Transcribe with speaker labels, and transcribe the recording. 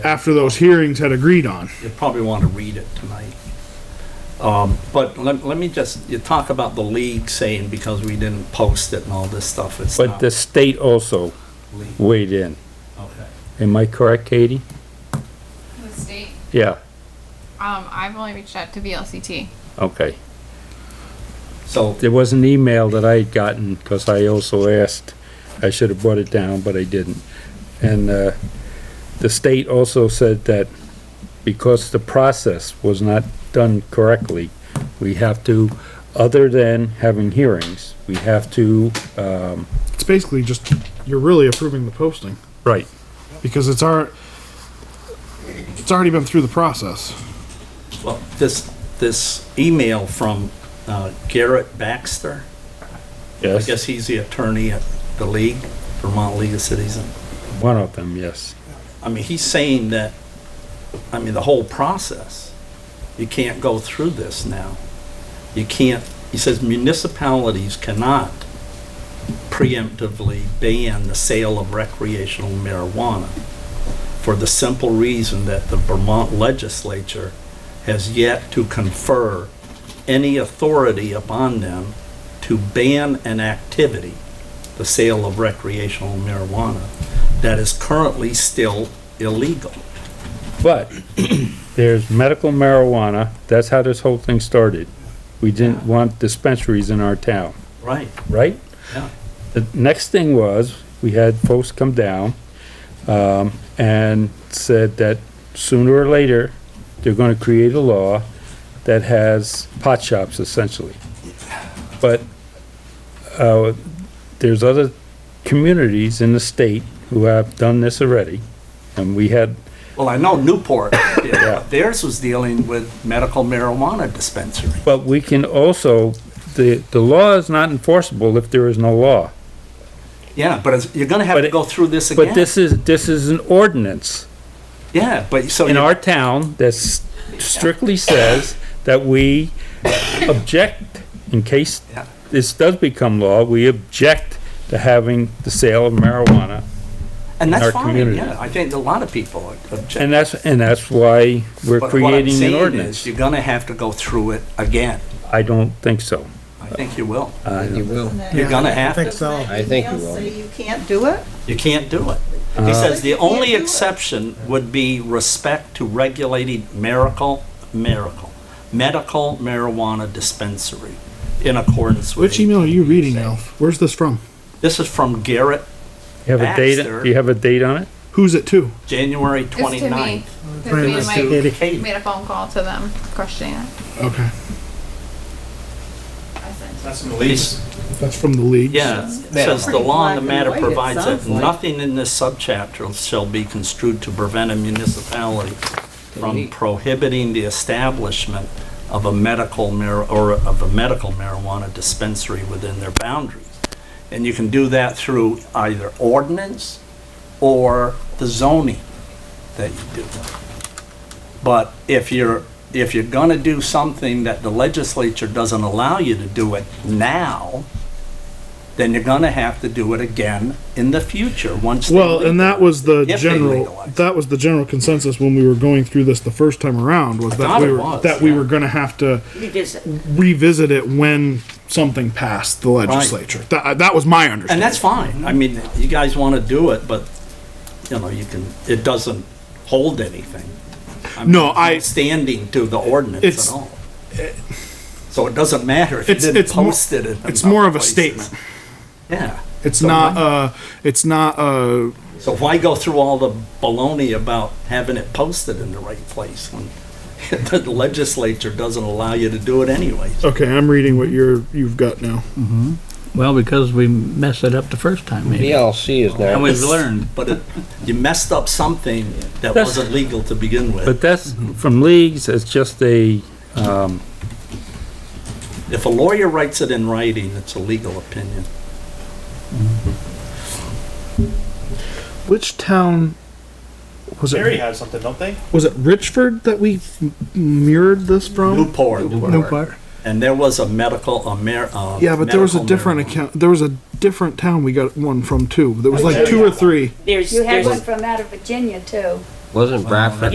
Speaker 1: after those hearings had agreed on.
Speaker 2: you probably want to read it tonight. Um, But let, let me just, you talk about the league saying because we didn't post it and all this stuff, it's
Speaker 3: But
Speaker 2: not
Speaker 3: the state also
Speaker 2: league.
Speaker 3: weighed in.
Speaker 2: Okay.
Speaker 3: Am I correct, Katie?
Speaker 4: The state,
Speaker 3: Yeah,
Speaker 4: um, I've only reached out to VLCT.
Speaker 3: okay.
Speaker 2: So,
Speaker 3: There was an email that I had gotten, because I also asked, I should have brought it down, but I didn't. And, uh, the state also said that because the process was not done correctly, we have to, other than having hearings, we have to, um,
Speaker 1: It's basically just, you're really approving the posting
Speaker 3: right,
Speaker 1: because it's our, it's already been through the process.
Speaker 2: well, this, this email from uh, Garrett Baxter, I
Speaker 3: yes,
Speaker 2: guess he's the attorney at the league, Vermont League of Cities. and-
Speaker 3: one of them, yes.
Speaker 2: I mean, he's saying that, I mean, the whole process, you can't go through this now. You can't, he says municipalities cannot preemptively ban the sale of recreational marijuana for the simple reason that the Vermont legislature has yet to confer any authority upon them to ban an activity, the sale of recreational marijuana, that is currently still illegal.
Speaker 3: But there's medical marijuana, that's how this whole thing started. We didn't want dispensaries in our town,
Speaker 2: Right.
Speaker 3: right?
Speaker 2: Yeah.
Speaker 3: The next thing was, we had folks come down, um, and said that sooner or later, they're gonna create a law that has pot shops essentially. But, uh, there's other communities in the state who have done this already, and we had
Speaker 2: Well, I know Newport did, but theirs was dealing with medical marijuana dispensary.
Speaker 3: But we can also, the, the law is not enforceable if there is no law.
Speaker 2: Yeah, but it's- you're gonna have
Speaker 3: But
Speaker 2: to
Speaker 3: it-
Speaker 2: go through this again.
Speaker 3: But this is, this is an ordinance
Speaker 2: Yeah, but so.
Speaker 3: in
Speaker 2: you-
Speaker 3: our town that s- strictly says that we object in case
Speaker 2: Yeah.
Speaker 3: this does become law, we object to having the sale of marijuana.
Speaker 2: And that's
Speaker 3: our
Speaker 2: fine,
Speaker 3: community.
Speaker 2: yeah. I think a lot of people object.
Speaker 3: And that's, and that's why we're
Speaker 2: But what I'm
Speaker 3: creating
Speaker 2: saying
Speaker 3: an
Speaker 2: is,
Speaker 3: ordinance.
Speaker 2: You're gonna have to go through it again.
Speaker 3: I don't think so.
Speaker 2: I think you will.
Speaker 3: I
Speaker 5: You will.
Speaker 2: You're gonna have to.
Speaker 5: I think you will.
Speaker 6: Say you can't do it?
Speaker 2: You can't do it.
Speaker 1: Uh-huh.
Speaker 2: He says the only exception would be respect to regulating miracle, miracle, medical marijuana dispensary in accordance with.
Speaker 1: Which email are you reading, Alf? Where's this from?
Speaker 2: This is from Garrett,
Speaker 3: You have a date,
Speaker 2: Baxter.
Speaker 3: do you have a date on it?
Speaker 1: Who's it to?
Speaker 2: January
Speaker 4: It's to me.
Speaker 2: 29th.
Speaker 4: 'cause we
Speaker 2: It's
Speaker 4: made-
Speaker 2: to
Speaker 4: Made
Speaker 2: Katie.
Speaker 4: a phone call to them questioning it.
Speaker 1: Okay,
Speaker 2: He's-
Speaker 1: that's from the league.
Speaker 2: Yeah, it says the law on the matter
Speaker 6: Pretty black
Speaker 2: provides
Speaker 6: and white, it
Speaker 2: that
Speaker 6: sounds like.
Speaker 2: nothing in this subchapter shall be construed to prevent a municipality from prohibiting the establishment of a medical mar, or of a medical marijuana dispensary within their boundaries. And you can do that through either ordinance or the zoning that you do. But if you're, if you're gonna do something that the legislature doesn't allow you to do it now, then you're gonna have to do it again in the future, once. they
Speaker 1: Well, and that was the
Speaker 2: If they
Speaker 1: general,
Speaker 2: legalize.
Speaker 1: that was the general consensus when we were going through this the first time around was that
Speaker 2: thought
Speaker 1: we
Speaker 2: it
Speaker 1: were,
Speaker 2: was,
Speaker 1: that we
Speaker 2: yeah.
Speaker 1: were gonna have to
Speaker 6: Revisit.
Speaker 1: revisit it when something passed the legislature. That, that was my understanding.
Speaker 2: And that's fine, I mean, you guys wanna do it, but, you know, you can, it doesn't hold anything. mean,
Speaker 1: No,
Speaker 2: it's
Speaker 1: I-
Speaker 2: not Standing to the ordinance
Speaker 1: It's-
Speaker 2: at all. So it doesn't matter if you
Speaker 1: It's-
Speaker 2: didn't
Speaker 1: it's more-
Speaker 2: post it in.
Speaker 1: it's
Speaker 2: enough
Speaker 1: more of a
Speaker 2: places.
Speaker 1: statement.
Speaker 2: Yeah.
Speaker 1: It's
Speaker 2: So
Speaker 1: not,
Speaker 2: why-
Speaker 1: uh, it's not, uh,
Speaker 2: So why go through all the baloney about having it posted in the right place when the legislature doesn't allow you to do it anyways?
Speaker 1: okay, I'm reading what you're, you've got now.
Speaker 7: Well, because we messed it up the first time, maybe.
Speaker 5: VLC is
Speaker 7: And
Speaker 5: now,
Speaker 7: we've learned.
Speaker 2: But it, you messed up something that
Speaker 3: That's-
Speaker 2: wasn't legal to begin with.
Speaker 3: But that's, from leagues, it's just a,
Speaker 2: If a lawyer writes it in writing, it's a legal opinion.
Speaker 1: Which town was
Speaker 8: Perry
Speaker 1: it?
Speaker 8: has something, don't they?
Speaker 1: Was it Richford that we m- mirrored this from?
Speaker 2: Newport.
Speaker 1: Newport.
Speaker 2: And there was a medical, a mar, uh.
Speaker 1: Yeah, but there was a
Speaker 2: medical
Speaker 1: different
Speaker 2: marijuana.
Speaker 1: account. There was a different town we got one from too. There was like two or three.
Speaker 9: There's,
Speaker 10: You had one
Speaker 9: there's,
Speaker 10: from out of Virginia too.
Speaker 5: Wasn't Bradford